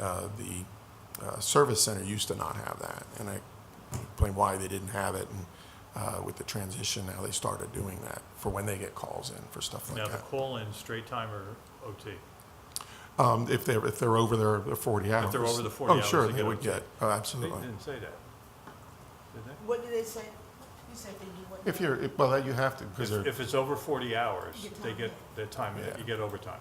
uh, the uh, service center used to not have that, and I explained why they didn't have it, and uh, with the transition, now they started doing that for when they get calls in for stuff like Now, the that. call-in, straight time or OT? Um, If they're, if they're over their their 40 hours. they're over the 40 Oh, sure, hours, they they get would it. get, oh, They absolutely. didn't say that, did they? What do they say? You said they do what? If you're, if- well, you have to, because If- they're, If it's over 40 hours, You get they time. get the time, Yeah. you get overtime.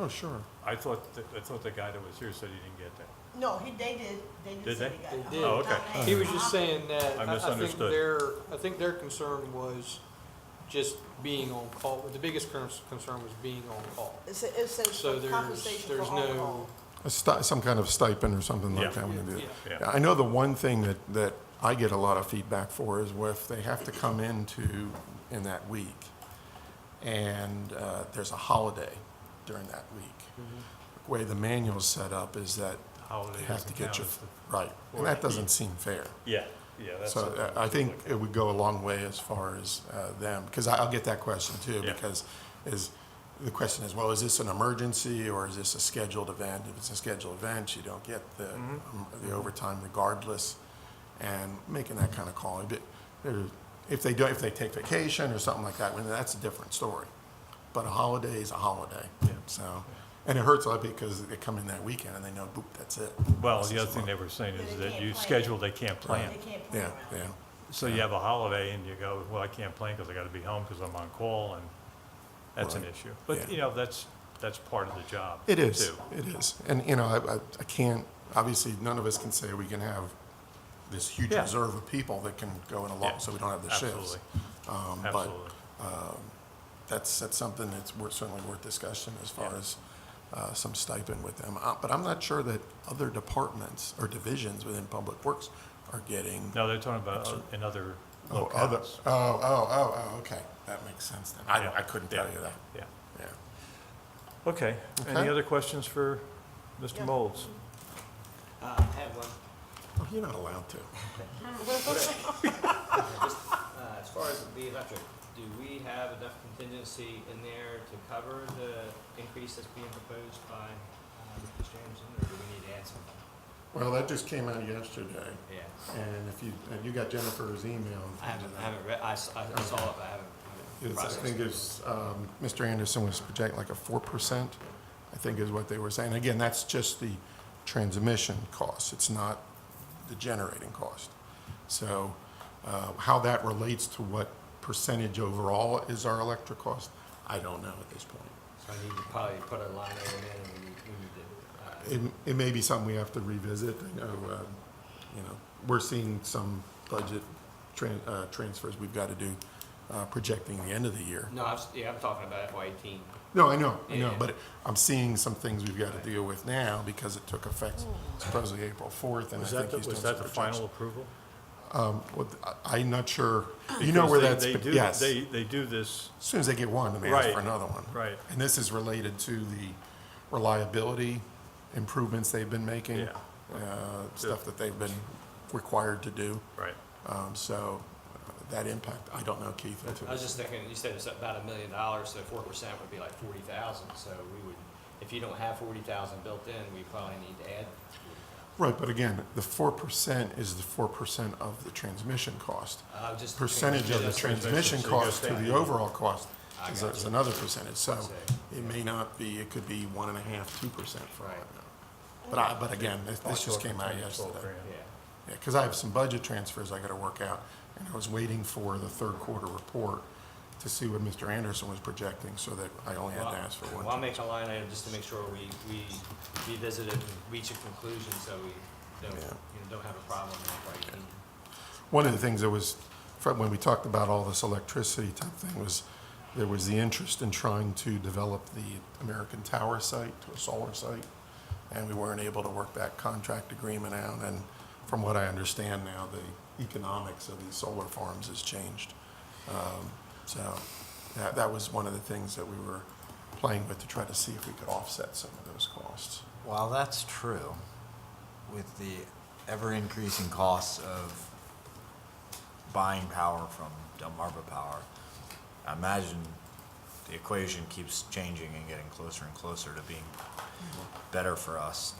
oh, sure. I thought, that- I thought the guy that was here said he didn't get that. No, he, they did, they Did did say they? they They got. did. Oh, okay. He was just saying that. I think misunderstood. Their, I think their concern was just being on call, the biggest cur- concern was being on call. It said, it said So there's- compensation for there's on no- call. A sti- Some kind of stipend or something Yeah. like that. when they do Yeah. that. Yeah. I know the one thing that, that I get a lot of feedback for is where if they have to come into, in that week, and uh, there's a holiday during that week. Mm-hmm. The way the manual's set up is that Holiday they have to doesn't get count you, as the- right, and that doesn't seem fair. Yeah, yeah, that's. So uh, I think it would go a long way as far as uh, them, because I'll get that question too, Yeah. because is, the question is, well, is this an emergency or is this a scheduled event? If it's a scheduled event, you don't get the, Mm-hmm. um, the overtime regardless, and making that kind of call. If it- there- If they do, if they take vacation or something like that, well, that's a different story. But a holiday is a holiday, so, and it hurts a lot because they come in that weekend and they know, boop, that's it. Well, This the is other thing what- they were saying But is they that can't you plan. schedule, they can't plan. They can't plan Yeah, around it. yeah. So you have a holiday and you go, well, I can't plan because I got to be home because I'm on call and that's an Right. issue. Yeah. But, you know, that's, that's part of the job. It is. too. It is. And, you know, I, I, I can't, obviously, none of us can say we can have this huge Yeah. reserve of people that can go in a Yeah, lot, so we don't have the shifts. Absolutely, Um, But absolutely. that's, that's something that's worth, certainly worth discussion as far as, uh, some stipend with them. Uh, But I'm not sure that other departments or divisions within Public Works are getting. No, they're talking about o- in other Oh, other, locales. oh, oh, oh, oh, okay. That makes sense then. I, Yeah. I couldn't tell you that. Yeah. Yeah. Okay. Any Okay. other questions for Mr. Yeah. Molds? Uh, I have one. Oh, You're not allowed to. Just, uh, as far as the electric, do we have enough contingency in there to cover the increase that's being proposed by, uh, Mr. Jameson, or do we need to add something? Well, that just came out yesterday. Yeah. And if you, and you got Jennifer's email. I haven't, I haven't read, I, s- I I saw it, but I haven't- I It's- haven't I processed think it. it's, um, Mr. Anderson was projecting like a four percent, I think is what they were saying. Again, that's just the transmission cost. It's not the generating cost. So, uh, how that relates to what percentage overall is our electric cost, I don't know at this point. So I need to probably put a line item in, and we need, we need to, uh, It, it may be something we have to revisit. I know, um, you know, we're seeing some budget tran- uh, transfers we've got to do, uh, projecting the end of the year. no, I'm, s- yeah, I'm talking about FY eighteen. No, I know, I know, Yeah. but I'm seeing some things we've got to deal with now because it took effect supposedly April fourth, and I Was that, think the- he's doing was some that the final projections. approval? Well, I- I'm not sure, you know Because where they- that's, they but do- yes, as They, they do this, soon as they get one, they ask for Right, another one. right. And this is related to the reliability improvements they've been making. Yeah. Uh, stuff that they've been required to do, right. um, so uh, that impact, I don't know, Keith. if it- I was just thinking, you said it's about a million dollars, so four percent would be like forty thousand, so we would, if you don't have forty thousand built in, we probably need to add Right, but again, the four percent is the four percent of the transmission cost. Uh, just. percentage of the just- transmission so you go cost to down. the overall cost I is, got is you. another percentage, so see. it may not be, it could be one and a half, two percent for all I know. Right. But I, but again, this, this just Talking came out 10, 12 yesterday. grand. Yeah, Yeah, cause I have some budget transfers I gotta work out, and I was waiting for the third quarter report to see what Mr. Anderson was projecting, so that I only had Well, to ask for Well, I'll one. make a line item just to make sure we, we revisit it and reach a conclusion so we don't, you Yeah. know, don't have a problem in FY eighteen. One of the things that was, from when we talked about all this electricity type thing was, there was the interest in trying to develop the American Tower site to a solar site. and we weren't able to work that contract agreement out. And from what I understand now, the economics of these solar farms has changed. Um, So that, that was one of the things that we were playing with to try to see if we could offset some of those costs. While that's true, with the ever-increasing costs of buying power from Delmarva Power, I imagine the equation keeps changing and getting closer and closer to being better for us